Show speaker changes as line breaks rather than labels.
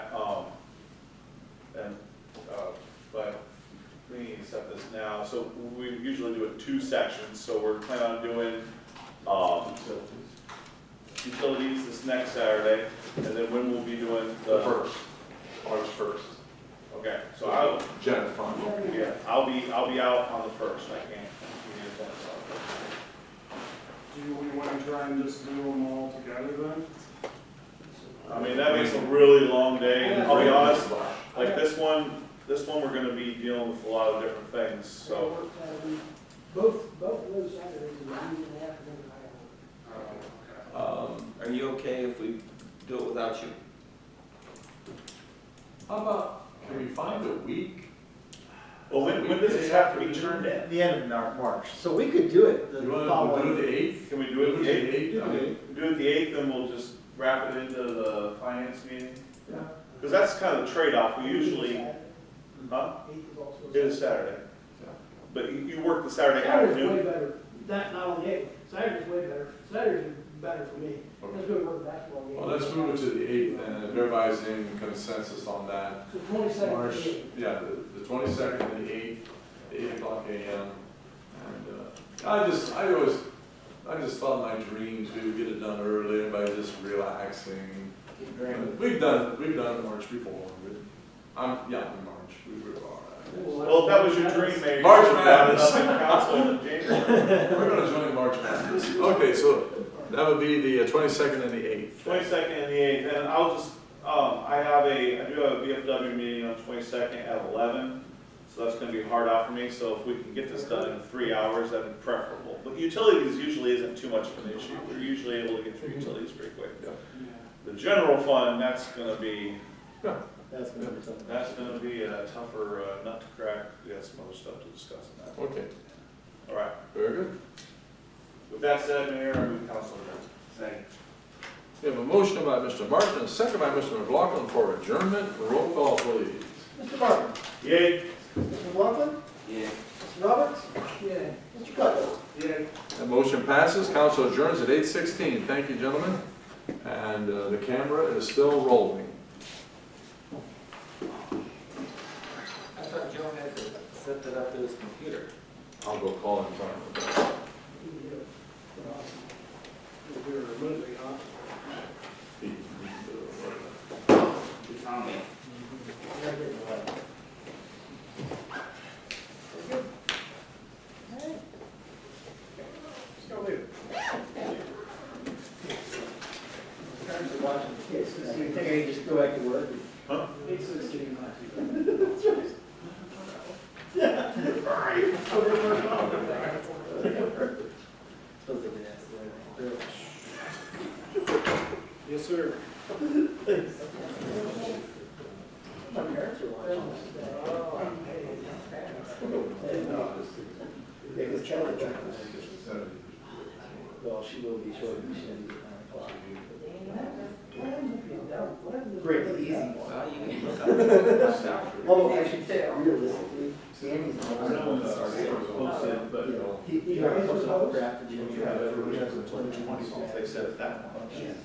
Um, uh, now, so we usually do it two sections, so we're planning on doing, um, utilities this next Saturday, and then when we'll be doing
The
the,
first, March first.
okay, so I'll,
General fund.
yeah, I'll be, I'll be out on the first, I can't. be in that.
Do you, we wanna try and just do them all together then?
I mean, that makes a really long day, and I'll be honest,
Well,
like this one, this one, we're gonna be dealing with a lot of different things, so.
uh, Both, both of those Saturdays, and I need an afternoon and I
Oh,
Um, are you okay if we do it without you?
How about, can we find a week?
Well, when, when does this have to be turned in?
At the end of Mar- March, so we could do it the
You want to do
following.
the eighth?
Can we do it the eighth?
eighth? I mean,
Do it the eighth, and we'll just wrap it into the finance meeting?
yeah.
Because that's kind of the trade-off, we
don't-
usually,
Saturday.
huh?
Eighth is also.
It is Saturday. But you, you work the Saturday
Saturday's
afternoon,
way better, that, not on the eighth, Saturday's way better, Saturday's better for me,
Okay.
let's go to the basketball game.
Well, let's move it to the eighth, and if everybody's in consensus on that,
So twenty-second,
March, yeah, the- the twenty-second and the eighth, eight o'clock AM. And, uh, I just, I always, I just thought my dreams, we would get it done early, and by just relaxing. We've done, we've done March before, we, I'm, yeah, in March, we were all right.
well, if that was your dream, maybe.
March
you should wrap it
Madness.
up in Council in January.
We're gonna join March Madness. Okay, so that would be the uh, twenty-second and the eighth.
Twenty-second and the eighth, and I'll just, um, I have a, I do have a BFW meeting on twenty-second at eleven, so that's gonna be hard out for me, so if we can get this done in three hours, that'd be preferable. But utilities usually isn't too much of an issue, we're usually able to get through utilities pretty quick. The general fund, that's gonna be,
That's gonna be something.
that's gonna be a tougher uh, nut to crack, we got some other stuff to discuss in that.
Okay,
All right,
very good.
With that said, Mayor, I move council adjourned.
We have a motion by Mr. Martin, and a second by Mr. McLaughlin for adjournment. Roll call, please.
Mr. Martin,
Yay.
Mr. Laughlin,
Yeah.
Mr. Roberts,
yeah.
Mr. Cutler.
Yeah,
That motion passes. Council adjourns at eight sixteen. Thank you, gentlemen. And uh, the camera is still rolling.
I thought Joe had to set that up to his computer.
I'll go call him. tomorrow.
we were moving, huh?
He- he, uh,
He found me.
Still do.
Parents are watching the kids, so you think I can just go back to work?
Huh?
It's so stupid. Supposed to be that.
Yes, sir.
My parents are watching. They could tell the difference. Well, she will be shortly, she'll be at nine o'clock. Great, easy one.
Well, you can look up.
Although I should say, realistically, Danny's the one that wants to stay.
Oh,
You know, He, he always was up for after Jimmy.
Yeah, but it was just a 20, They said at that point.